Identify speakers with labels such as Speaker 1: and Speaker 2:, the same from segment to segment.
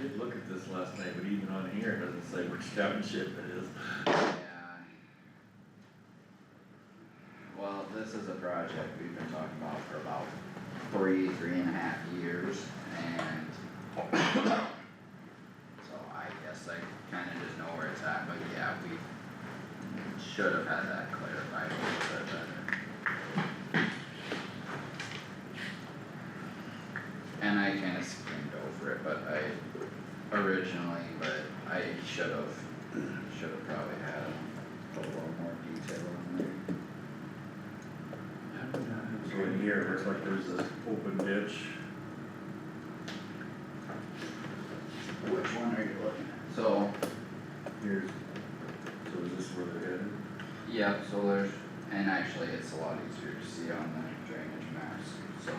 Speaker 1: did look at this last night, but even on here, it doesn't say which township it is.
Speaker 2: Yeah. Well, this is a project we've been talking about for about three, three and a half years, and so I guess I kinda just know where it's at, but yeah, we should have had that clarified a little bit better. And I kinda skimmed over it, but I originally, but I should have should have probably had a little more detail on there.
Speaker 1: So in here, it looks like there's this open ditch,
Speaker 2: Which one are you looking at? So,
Speaker 1: here's, so is this where they're headed?
Speaker 2: yeah, so there's, and actually it's a lot easier to see on the drainage maps, so,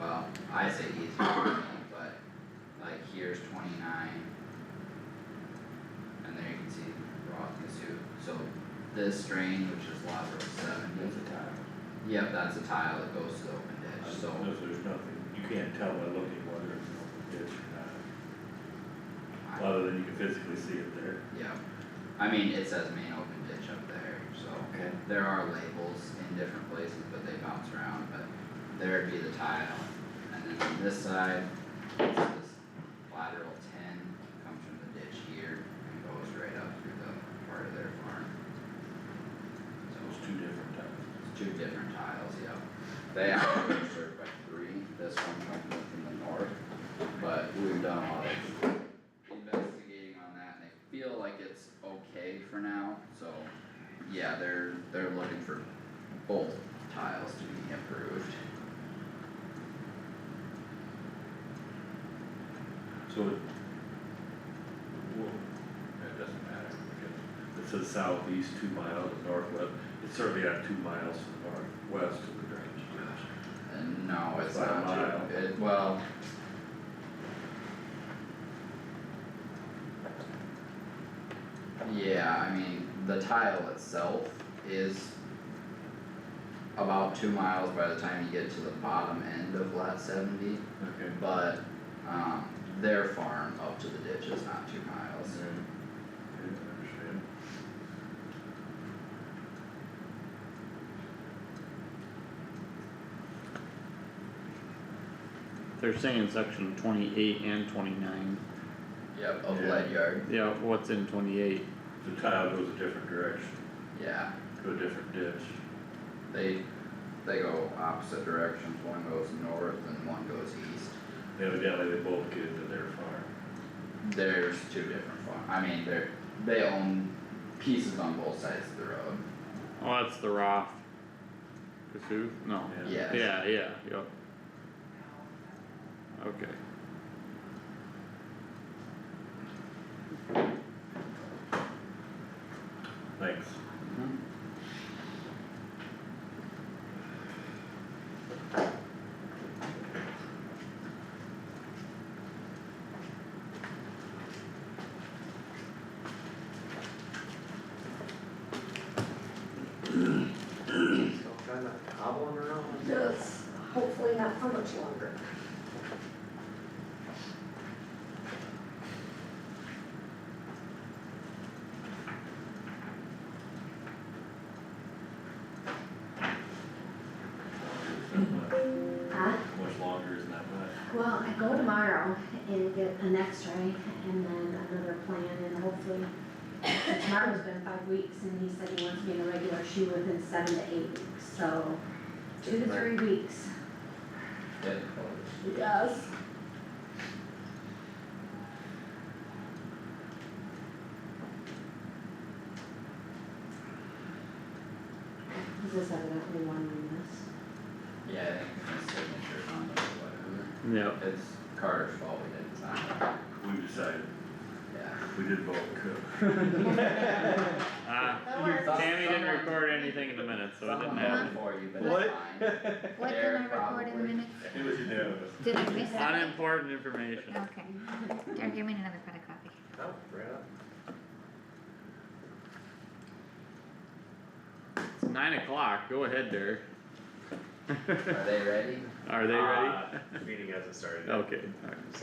Speaker 2: well, I say easier for me, but like here's twenty-nine. And there you can see Rock Mizzou, so this drain, which is lot row seventy.
Speaker 3: There's a tile.
Speaker 2: Yep, that's a tile that goes to the open ditch, so.
Speaker 1: No, there's nothing, you can't tell by looking whether it's an open ditch or
Speaker 2: I-
Speaker 1: not, other than you can physically see it there.
Speaker 2: Yeah, I mean, it says main open ditch up there, so
Speaker 3: Okay.
Speaker 2: there are labels in different places, but they bounce around, but there'd be the tile. And then on this side, it's this lateral ten, comes from the ditch here and goes right up through the part of their farm. So
Speaker 1: Those two different times.
Speaker 2: it's two different tiles, yeah. They actually are served by three, this one comes in from the north, but we've done a lot of investigating on that, and they feel like it's okay for now, so, yeah, they're, they're looking for both tiles to be approved.
Speaker 1: So it. Well, it doesn't matter, because it says southeast two miles northwest, it's certainly not two miles to the northwest of the drainage ditch.
Speaker 2: And no, it's
Speaker 1: By a
Speaker 2: not
Speaker 1: mile.
Speaker 2: too, it, well. Yeah, I mean, the tile itself is about two miles by the time you get to the bottom end of lot seventy,
Speaker 1: Okay.
Speaker 2: but, um, their farm up to the ditch is not two miles.
Speaker 1: understand.
Speaker 4: They're saying section twenty-eight and twenty-nine,
Speaker 2: Yep, of
Speaker 1: Yeah.
Speaker 2: lead yard,
Speaker 4: yeah, what's in twenty-eight?
Speaker 1: The tile goes a different direction,
Speaker 2: yeah,
Speaker 1: to a different ditch.
Speaker 2: they, they go opposite directions, one goes north and one goes east.
Speaker 1: Evidently, they both get into their farm.
Speaker 2: There's two different farm, I mean, they're, they own pieces on both sides of the road,
Speaker 4: Oh, that's the Roth. Kasuth, no,
Speaker 2: yes.
Speaker 4: yeah, yeah, yep. Okay,
Speaker 1: Thanks.
Speaker 3: So try not to hobble them around.
Speaker 5: Yes, hopefully not for much longer. Huh?
Speaker 1: Much longer isn't that much.
Speaker 5: Well, I go tomorrow and get an x-ray and then another plan and hopefully, tomorrow's been five weeks and he said he wants me in a regular shoe within seven to eight weeks, so two to three weeks.
Speaker 2: Getting
Speaker 5: Yes. This is evidently one we missed.
Speaker 2: close. Yeah, I think the signature's on it, or
Speaker 4: yep,
Speaker 2: whatever, it's Carter's fault we didn't sign it,
Speaker 1: We've decided,
Speaker 2: yeah.
Speaker 1: we did both, cook.
Speaker 4: ah, Tammy didn't record anything in the minutes, so it didn't
Speaker 2: Someone
Speaker 4: happen.
Speaker 2: went for you, but it's fine.
Speaker 6: What did
Speaker 2: Derek
Speaker 6: I record in
Speaker 2: probably.
Speaker 6: the minute?
Speaker 1: It was unanimous.
Speaker 6: Did I miss that?
Speaker 4: Unimportant information.
Speaker 6: Okay. Derek, give me another cut of coffee.
Speaker 3: Oh, right up.
Speaker 4: It's nine o'clock, go ahead, Derek.
Speaker 2: Are they ready?
Speaker 4: Are they ready?
Speaker 3: Uh, Meeting hasn't started yet.
Speaker 4: Okay, alright.